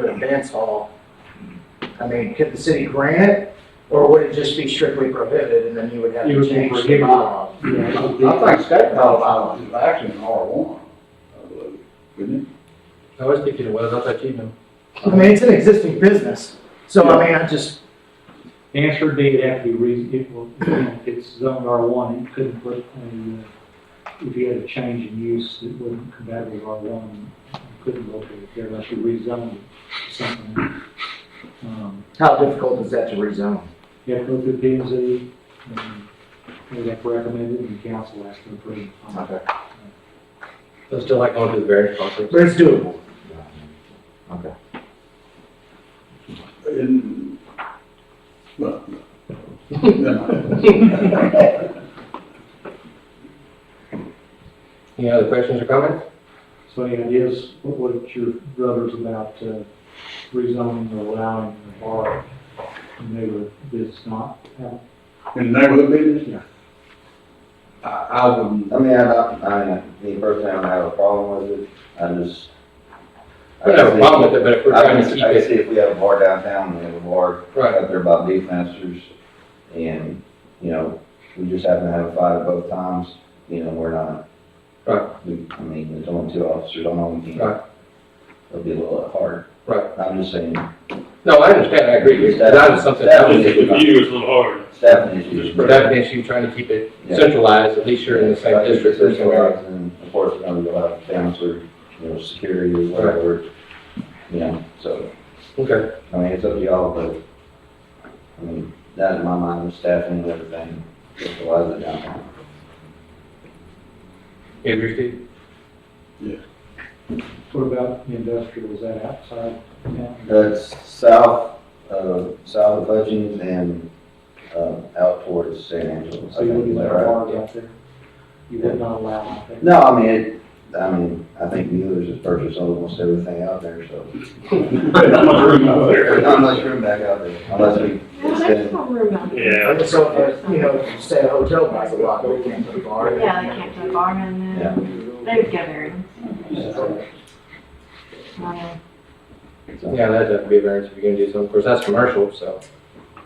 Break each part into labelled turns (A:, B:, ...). A: do a dance hall, I mean, could the city grant it, or would it just be strictly prohibited, and then you would have
B: It
A: to
B: would be
A: change the
B: prohibited.
A: bylaw?
C: I think state law violence is actually an R one, I believe, isn't
D: I was thinking it was, I thought you know.
A: I mean, it's an existing business, so I mean, I just,
B: Answer date have to be reasonable, it will- you know, if it's zoned R one, it couldn't put a, uh, if you had a change in use that wasn't compatible with R one, couldn't locate it there unless you rezoned it to something. Um,
A: how difficult is that to rezone?
B: You have to go through P and Z, and they have to recommend it, and the council has to approve. it.
A: Okay.
D: It's still like going to the variance process.
A: But it's doable.
C: it? In- but-
D: Any other questions or comments?
B: So any ideas, what, what your brothers about uh, rezoning or allowing the bar in the neighborhood that's not, uh,
C: In the neighborhood business?
B: Yeah.
C: I, I wouldn't,
E: I mean, I don't, I, the first time I have a problem with it, I just.
D: We don't have a problem with it, but if we're trying to keep
E: I
D: it,
E: see if we have a bar downtown, we have a bar
D: right,
E: out there by beef masters, and, you know, we just happen to have a fight at both times, you know, we're not.
D: Right.
E: We, I mean, there's only two officers on all team.
D: Right.
E: It'll be a little hard.
D: Right.
E: I'm just saying,
D: no, I understand, I agree, that was something, that was
F: With you, it's a little harder.
E: staffing issues.
D: But that issue, trying to keep it centralized, at least you're in the same district or somewhere.
E: And of course, you know, you'll have counselor, you know, security or whatever, you know, so,
D: Okay,
E: I mean, it's up to y'all, but, I mean, that in my mind, the staffing and everything, it's a lot of the downtown.
D: you agree, Steve?
B: what about the industrial, is that outside? town?
E: That's south, uh, south of Hutchins and, uh, out towards San Angelo. I
B: So you
E: think,
B: wouldn't
E: is that
B: allow
E: right?
B: bars out there? You would not allow out there?
E: No, I mean, it, I mean, I think Mueller's has purchased almost everything out there, so.
F: Not much room out
E: There's
F: there.
E: not much room back out there, unless we
G: Well,
E: extend
G: there's no room out there.
F: Yeah.
A: I just hope that, you know, if you stay at a hotel by the lot, we can't put a bar.
G: Yeah, they can't put a barn in
E: Yeah.
G: there. They would get Um, variance.
D: Yeah, that'd have to be a variance if you're gonna do something, of course, that's commercial, so.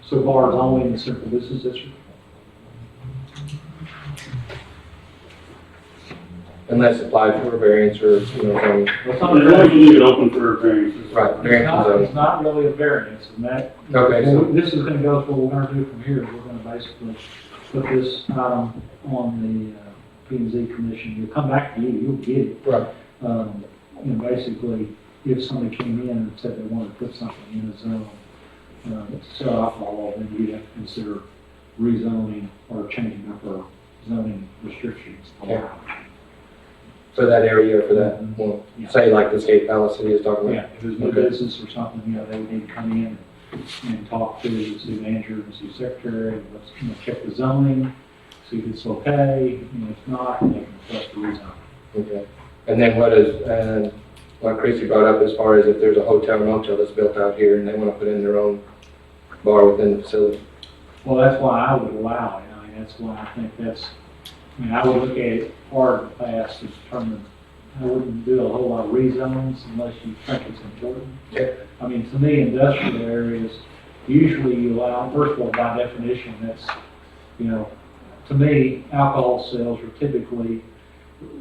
B: So bars only in the central business district?
D: Unless applied for a variance or, you know, some,
B: It's not
F: As long as
B: really-
F: you leave it open for variances.
D: right,
B: It's
D: variance
B: not,
D: zone.
B: it's not really a variance, and that
D: Okay, so,
B: Well, This is gonna go to what we're gonna do from here, we're gonna basically put this item on the uh, P and Z commission, you'll come back to you, you'll get it.
D: Right.
B: Um, you know, basically, if somebody came in and said they wanted to put something in a zone, uh, to sell alcohol, then you'd have to consider rezoning or changing up our zoning restrictions.
D: Yeah. for that area, for that, well, say like the skate palace city is talking about.
B: Yeah, if it's new
D: Okay.
B: business or something, you know, they would need to come in and talk to the city manager and the city secretary, and let's, you know, check the zoning, see if it's okay, and if not, they can request a rezon.
D: Okay. And then what is, and what Chrissy brought up as far as if there's a hotel motel that's built out here and they want to put in their own bar within the facility.
B: Well, that's why I would allow it, I mean, that's why I think that's, I mean, I would look at it hard and fast to determine, I wouldn't do a whole lot of rezones unless you think it's important.
D: Yeah.
B: I mean, to me, industrial areas, usually you allow, first of all, by definition, that's, you know, to me, alcohol sales are typically,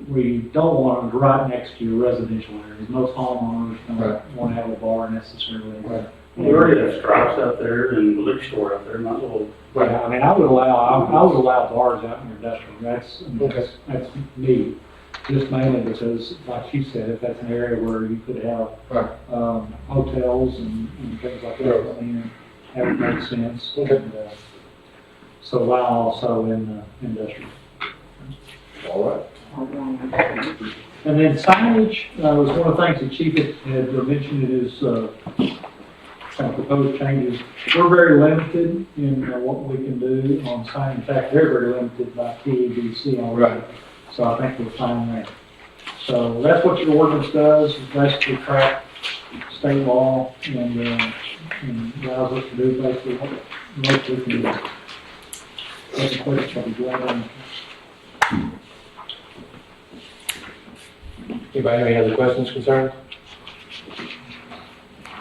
B: where you don't want them right next to your residential areas, most homeowners
D: Right.
B: don't want to have a bar necessarily.
D: Right.
F: We already have stripes out there and the liquor store out there, might as well.
D: Right.
B: Yeah, I mean, I would allow, I I would allow bars out in your industrial, that's, I mean,
D: Okay.
B: that's, that's me. Just mainly because, like you said, if that's an area where you could have,
D: Right.
B: um, hotels and, and things like that, I mean, that would make sense.
D: Okay.
B: And, uh, So allow also in, uh, industrial.
D: All right.
B: And then signage, uh, was one of the things that Chief had, had mentioned in his, uh, kind of proposed changes. We're very limited in uh, what we can do on signage. In fact, they're very limited by PEDC already.
D: Right.
B: So I think we're fine there. So that's what your ordinance does, is basically track state law and, uh, and allows us to do basically what, what we can do. Any questions, I'll be glad to answer.
D: Anybody have any other questions, concerns?